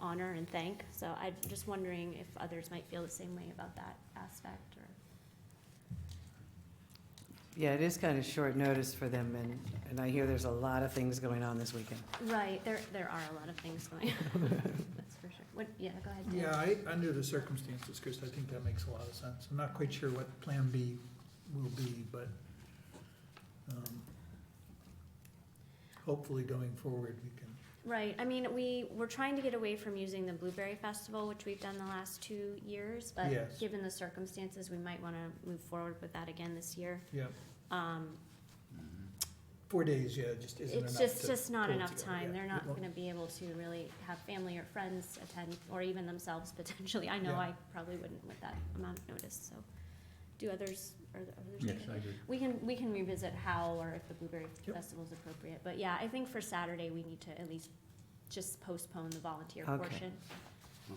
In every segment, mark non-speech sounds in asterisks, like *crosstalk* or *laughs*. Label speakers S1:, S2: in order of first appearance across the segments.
S1: honor and thank. So I'm just wondering if others might feel the same way about that aspect or.
S2: Yeah, it is kind of short notice for them, and, and I hear there's a lot of things going on this weekend.
S1: Right, there, there are a lot of things going on, that's for sure. What, yeah, go ahead, Dan.
S3: Yeah, I, under the circumstances, Chris, I think that makes a lot of sense. I'm not quite sure what Plan B will be, but um, hopefully going forward, we can,
S1: Right, I mean, we, we're trying to get away from using the Blueberry Festival, which we've done the last two years, but
S3: Yes.
S1: given the circumstances, we might wanna move forward with that again this year.
S3: yeah,
S1: Um,
S3: four days, yeah, just isn't enough
S1: it's
S3: to.
S1: just, just not
S3: pull
S1: enough
S3: together, yeah.
S1: time, they're not
S3: Well,
S1: gonna be able to really have family or friends attend, or even themselves *laughs* potentially, I know
S3: Yeah.
S1: I probably wouldn't with that amount of notice, so. Do others, are the others?
S4: Yes,
S1: okay?
S4: I agree.
S1: We can, we can revisit how or if the Blueberry
S3: Yep.
S1: Festival's appropriate, but yeah, I think for Saturday, we need to at least just postpone the volunteer
S2: Okay.
S1: portion.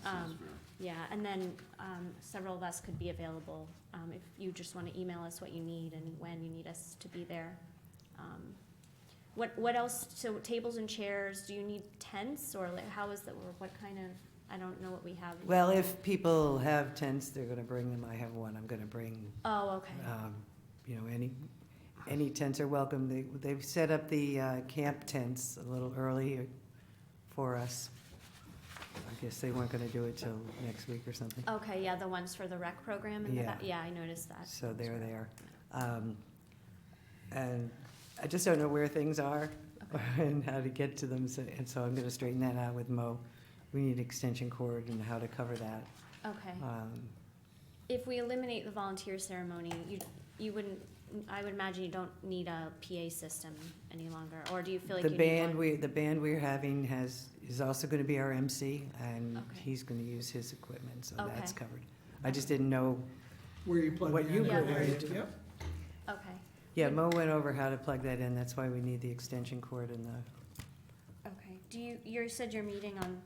S1: Um, Yeah, and then, um, several of us could be available, um, if you just wanna email us what you need and when you need us to be there. Um, What, what else, so tables and chairs, do you need tents, or like, how is that, or what kind of, I don't know what we have.
S2: Well, if people have tents, they're gonna bring them, I have one, I'm gonna bring,
S1: Oh, okay,
S2: um, you know, any, any tents are welcome. They, they've set up the, uh, camp tents a little early for us. I guess they weren't gonna do it till next week or something,
S1: okay, yeah, the ones for the rec program and the,
S2: Yeah.
S1: ba- yeah, I noticed that.
S2: so they're there. Um, and I just don't know where things are *laughs* and how to get to them, so, and so I'm gonna straighten that out with Mo. We need extension cord and how to cover that.
S1: Okay.
S2: Um,
S1: If we eliminate the volunteer ceremony, you, you wouldn't, I would imagine you don't need a PA system any longer, or do you feel like
S2: The
S1: you need one?
S2: band we, the band we're having has, is also gonna be our MC, and
S1: Okay.
S2: he's gonna use his equipment, so that's
S1: Okay.
S2: covered. I just didn't know,
S3: Where you plug
S2: what
S3: in.
S2: you
S3: and
S1: put
S3: where
S2: in.
S3: you- Yep,
S1: Okay,
S2: yeah,
S1: Would-
S2: Mo went over how to plug that in, that's why we need the extension cord and the
S1: okay. Do you, you said you're meeting on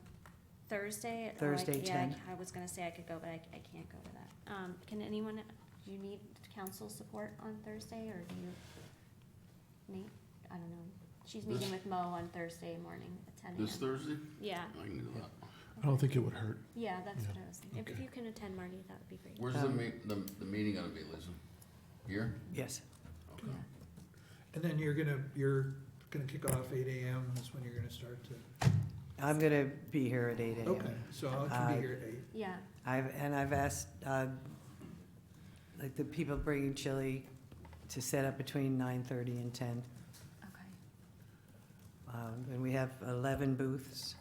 S1: Thursday? Oh, I-
S2: Thursday,
S1: yeah, I-
S2: 10.
S1: I was gonna say I could go, but I, I can't go to that. Um, can anyone, do you need council support on Thursday, or do you? Nate, I don't know. She's meeting with Mo on Thursday morning at ten AM.
S4: This Thursday?
S1: Yeah,
S4: I can do that.
S5: I don't think it would hurt.
S1: yeah, that's
S5: Yeah,
S1: what I was thinking. If
S5: okay.
S1: you can attend, Marty, that would be great.
S4: Where's the
S2: Um,
S4: ma- the, the meeting gonna be, Lisa? Here?
S2: yes.
S4: Okay.
S1: Yeah.
S3: and then you're gonna, you're gonna kick off eight AM is when you're gonna start to,
S2: I'm gonna be here at eight
S3: okay,
S2: AM.
S3: so I can
S2: Uh,
S3: be here at eight.
S1: Yeah,
S2: I've, and I've asked, uh, like, the people bringing chili to set up between nine-thirty and ten.
S1: okay.
S2: Um, and we have eleven booths,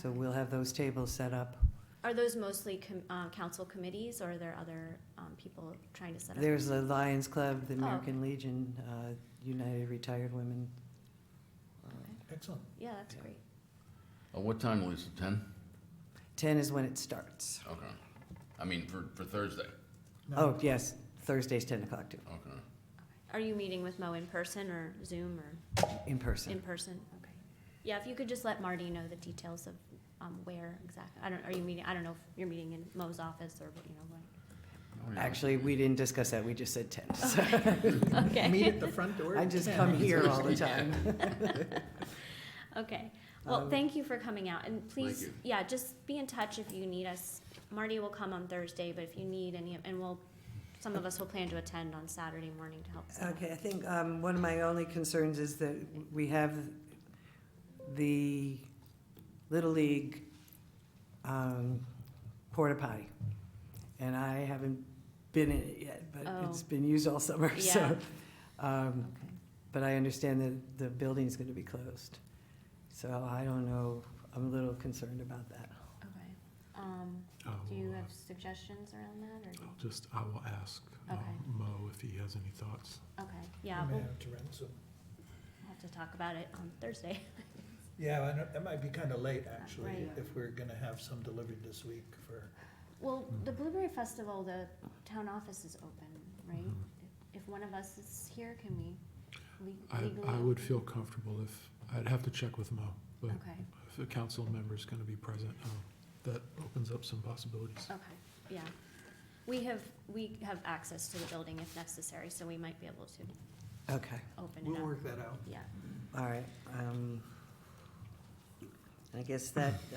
S2: so
S1: Okay.
S2: we'll have those tables set up.
S1: Are those mostly com- uh, council committees, or are there other um, people trying to set up?
S2: There's the Lions Club, the
S1: Oh, okay.
S2: American Legion, uh, United Retired Women. Uh,
S3: Excellent.
S1: Yeah, that's great.
S4: Uh, what time, Lisa? Ten?
S2: Ten is when it starts.
S4: Okay. I mean, for, for Thursday.
S3: No,
S2: Oh, yes, Thursday's ten o'clock too,
S4: Okay.
S1: Are you meeting with Mo in person or Zoom or
S2: in
S1: in
S2: person.
S1: person? Okay. Yeah, if you could just let Marty know the details of um, where exactly, I don't, are you meeting, I don't know if you're meeting in Mo's office or, what, you know,
S4: Oh, yeah.
S2: Actually, we didn't discuss that, we just said ten. so
S3: *laughs*
S1: what.
S3: Meet
S1: Okay,
S3: at the front door.
S2: *laughs* I
S3: at
S2: just
S3: 10.
S2: come here all the time.
S1: *laughs* okay. Well,
S2: Um,
S1: thank you for coming out, and please,
S4: you.
S1: yeah, just be in touch if you need us. Marty will come on Thursday, but if you need any, and we'll, some of us will plan to attend on Saturday morning to help. set up.
S2: Okay, I think um, one of my only concerns is that we have the Little League um, porta potty. And I haven't been in it yet, but it's
S1: Oh.
S2: been used all summer, *laughs* so. um,
S1: Okay.
S2: But I understand that the building's gonna be closed. So I don't know, I'm a little concerned about that.
S1: Okay, um,
S5: I
S1: do you
S5: will, uh,
S1: have suggestions around that, or, do
S5: I'll
S1: you-
S5: just, I will ask uh,
S1: Okay.
S5: Mo if he has any thoughts.
S1: okay,
S3: I
S1: yeah,
S3: may
S1: we'll
S3: have to rent some.
S1: we'll have to talk about it on Thursday.
S3: Yeah, I know, that might be kind of late, actually,
S1: Right.
S3: if we're gonna have some delivered this week for,
S1: *laughs* Well, the Blueberry Festival, the town office is open, right?
S5: Mhm.
S1: If if one of us is here, can we le-
S5: I,
S1: legally?
S5: I would
S1: open?
S5: feel comfortable if, I'd have to check with Mo, but
S1: Okay,
S5: if a council member's gonna be present, um, that opens up some possibilities.
S1: okay, yeah. We have, we have access to the building if necessary, so we might be able to
S2: Okay,
S1: open
S3: we'll
S1: it up,
S3: work that out.
S1: yeah.
S2: all right. um, I guess that,